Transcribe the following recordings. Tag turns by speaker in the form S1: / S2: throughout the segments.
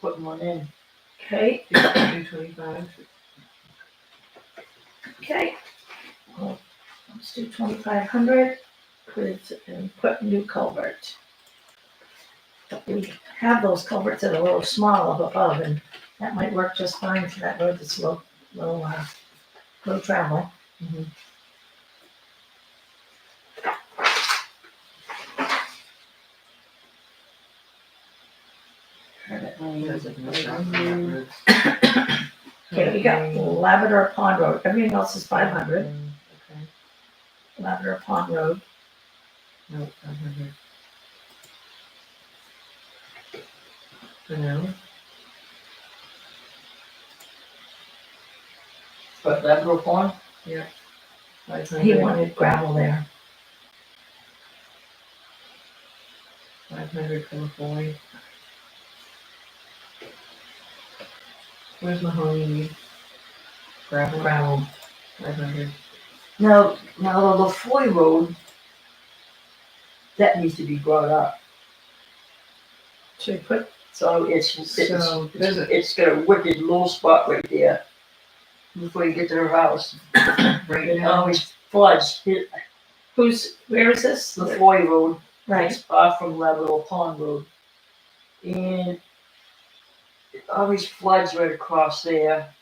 S1: putting one in.
S2: Okay,
S3: Two twenty-five.
S2: okay. Let's do twenty-five hundred,
S1: Quids and put new culvert.
S2: we
S1: Have those culverts that are a little small up above and that might work just fine for that road that's low, low, uh, low travel. Okay, we got Lavender Pond Road. Everything else is five hundred.
S3: Okay,
S1: Lavender Pond Road.
S3: no, five hundred. For now.
S1: But Lavender Pond?
S3: Five
S1: He
S3: hundred.
S1: wanted gravel there.
S3: Five hundred for McCoy. Where's Mahoney? Gravel,
S1: Gravel.
S3: five hundred.
S4: Now, now the LaFoy Road, that needs to be brought up.
S1: Should we put,
S4: So it's, it's,
S3: So, there's a-
S4: it's got a wicked little spot right there before you get to her house.
S3: Right
S4: It
S3: now,
S4: always floods. It-
S1: who's, where is this?
S4: LaFoy Road,
S1: Right,
S4: it's far from Labrador Pond Road. And it always floods right across there.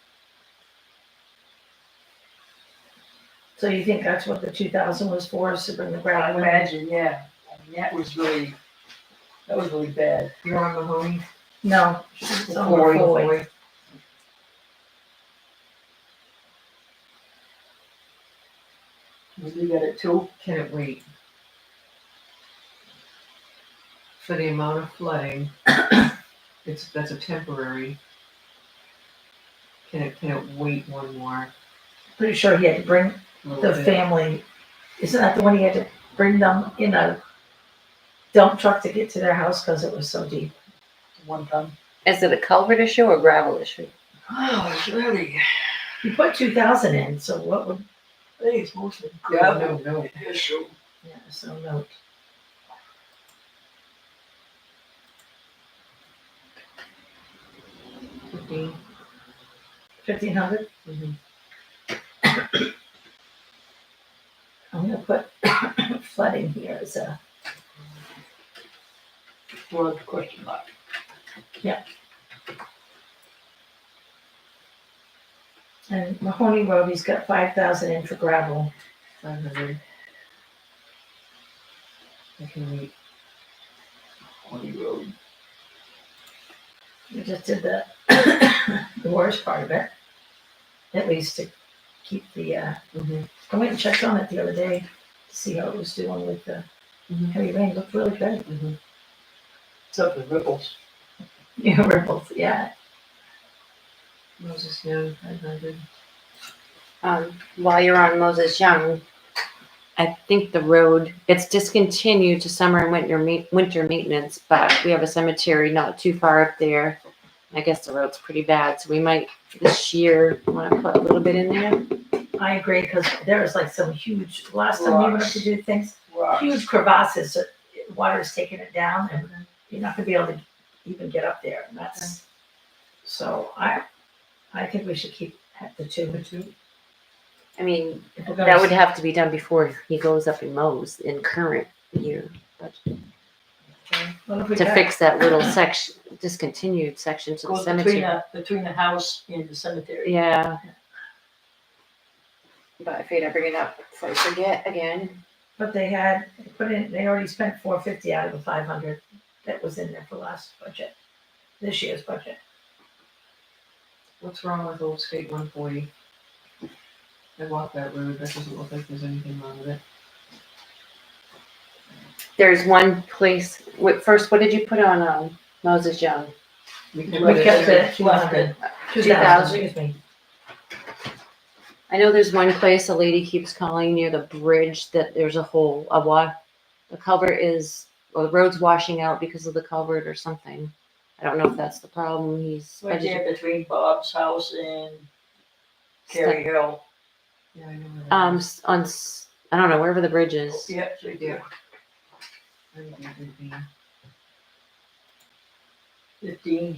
S1: so you think that's what the two thousand was for, is to bring the
S4: I
S1: gravel in?
S4: imagine, yeah. I mean, that was really, that was really bad.
S3: you're on Mahoney.
S1: No, it's on the forward.
S4: You got it too?
S3: Can it wait? For the amount of flooding, it's, that's a temporary. Can it, can it wait one more?
S1: Pretty sure he had to bring
S3: little
S1: the
S3: bit?
S1: family, isn't that the one he had to bring them in a dump truck to get to their house because it was so deep?
S4: One time.
S5: Is it a culvert issue or gravel issue?
S4: Oh, it's really,
S1: He put two thousand in, so what would,
S4: I think it's mostly
S3: No,
S4: gravel.
S3: no,
S4: Issue.
S1: yeah, so note.
S3: fifteen.
S1: Fifteen hundred?
S3: Mhm.
S1: I'm gonna put flooding here as a,
S4: Well, question mark.
S1: and Mahoney Road, he's got five thousand in for gravel.
S3: Five hundred. I can wait.
S4: County road.
S1: We just did the, the worst part of it. At least to keep the, uh,
S3: Mhm.
S1: I went and checked on it the other day to see how it was doing with the
S3: Mhm.
S1: heavy rain. Looked really good.
S4: Except the ripples.
S1: Yeah, ripples. Yeah.
S3: Moses Young, five hundred.
S5: Um, while you're on Moses Young, I think the road, it's discontinued to summer and winter ma- winter maintenance, but we have a cemetery not too far up there. I guess the road's pretty bad, so we might this year wanna put a little bit in there.
S1: I agree because there was like some huge, last time we went up to do things, huge
S4: Rocks.
S1: crevasses. that Water's taking it down and you're not going to be able to even get up there. And that's, so I, I think we should keep at the two.
S3: The two?
S5: I mean,
S1: If we're gonna
S5: that would have to be done before he goes up and mows in current year. but
S1: what have we
S5: To
S1: got?
S5: fix that little section, discontinued section to the
S4: Goes between
S5: cemetery.
S4: the, between the house and the cemetery.
S5: Yeah. But if you'd ever get up, before I forget again.
S1: But they had, they put in, they already spent four fifty out of the five hundred that was in there for last budget, this year's budget.
S3: What's wrong with old state one forty? I walked that road, that doesn't look like there's anything wrong with it.
S5: There's one place, wait, first, what did you put on, um, Moses Young?
S3: We
S1: We kept it at two
S4: Left
S1: hundred.
S4: it.
S1: Two
S5: 2,000.
S1: thousand, excuse me.
S5: I know there's one place a lady keeps calling near the bridge that there's a hole, a wa, the culvert is, well, the road's washing out because of the culvert or something. I don't know if that's the problem, he's.
S4: Right there between Bob's house and Carrie Hill.
S3: Yeah, I know. where that
S5: Um,
S3: is.
S5: s- on, s- I don't know, wherever the bridge is.
S4: Yep, right there.
S3: I think it would be-
S4: Fifteen.